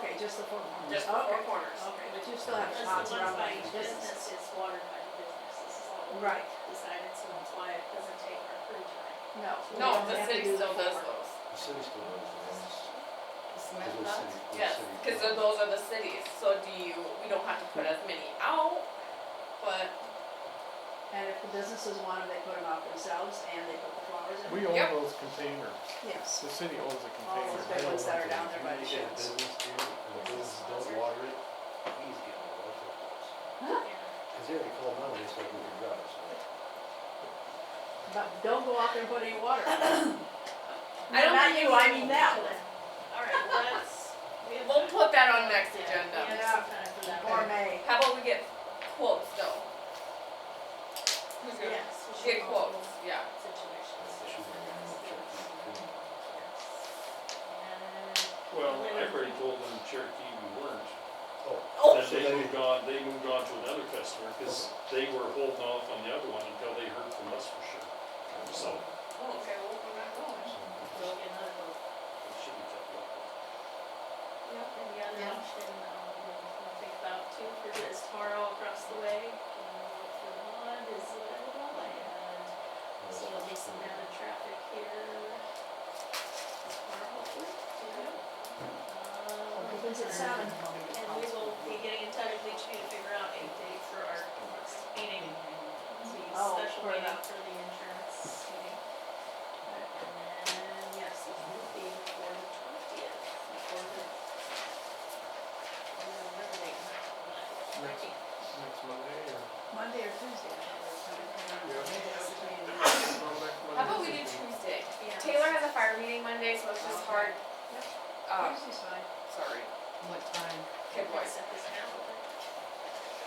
the four corners? Just the four Okay, corners. Okay, but you still have That's spots the ones around by the each business. business is watered by the business, this is all we Right. decided, so that's why it doesn't take our free time. No. we No, don't the have to city do the still does four. those. The city still does the ones. Smith Those nuts? city- those Yes, city cause nuts. those are the cities, so do you, we don't have to put as many out, but And if the businesses want them, they put them out themselves and they put the flowers in. We own Yep. Oh, those containers, Yes. the city owns the All those containers. big ones that are down there by the You get a sheds. business here, and the businesses don't water it, he's getting a lot of calls. Cause they already called on, they said we can drive, so. But don't go out there and put any water. I I don't Not think you, you- I mean that one. Alright, well, that's, we have. we'll time. put that on next Yeah, agenda. We have some time for that. Or May. How about we get quotes though? Who's gonna- Yes, we should Get all- quotes, yeah. Situations. They should be able to check the food. And- Well, I already told them Cherokee we weren't. Oh, Then so they- they moved on, they moved on to another customer, cause they were holding off on the other one until they heard from us for sure. So, Oh, okay, well, we're not going. We'll get another vote. it should be tough luck. Yep, and the other Yeah. option, um, we'll think about too, for this tomorrow across the way, um, the one is uh, available, and so there'll be some added traffic here. Tomorrow, hopefully, yeah. Um, Opens at seven. And we will be getting in touch with each of you to figure out a date for our next meeting, the Oh, special for meeting that. for the insurance meeting. And then, yes, it will be before the twentieth, before the. I'm gonna remember the date, but I can't. Next Monday or? Monday or Tuesday. I don't know. Yeah. Maybe that's between- How about we do Tuesday? Yeah. Taylor has a fire meeting Monday, so it's just hard. Yep. Uh, Tuesday's fine. sorry, What time? kid Can we voice. set this now?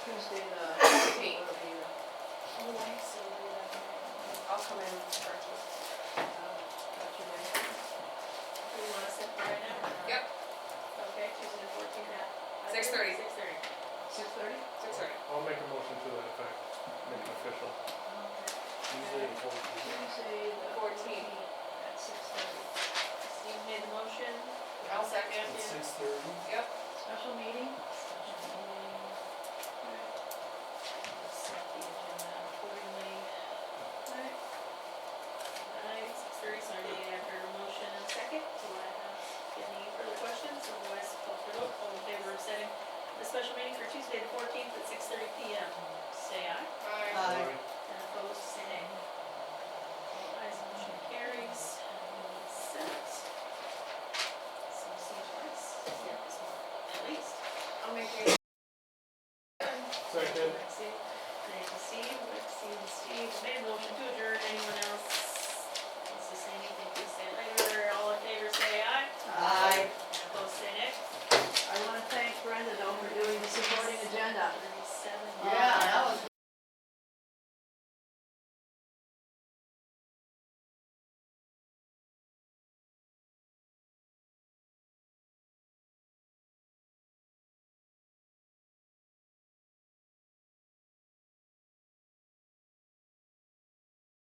Tuesday the. Eight. it'll be the- Oh, I see, we have that. I'll come in for Tuesday. uh, what's your name? Do you wanna set that right now? or not? Yep, Okay, Tuesday the fourteenth at. 6:30. Six thirty. Six thirty? six thirty. I'll make a motion to that effect, make it official. Tuesday and Thursday. Tuesday the. 14. At six thirty. Steve made the motion. I'll second. Yeah. Yep. Special meeting? Set the agenda accordingly. Right. Alright, six thirty, so I need after a motion and second, do I have any further questions, otherwise call for vote, all in favor of setting the special meeting for Tuesday the fourteenth at six thirty P M, say aye, Bye. Aye. and opposed, say nay. All ayes, motion carries, and set. So, see you guys, yeah, this one, at least. I'll make you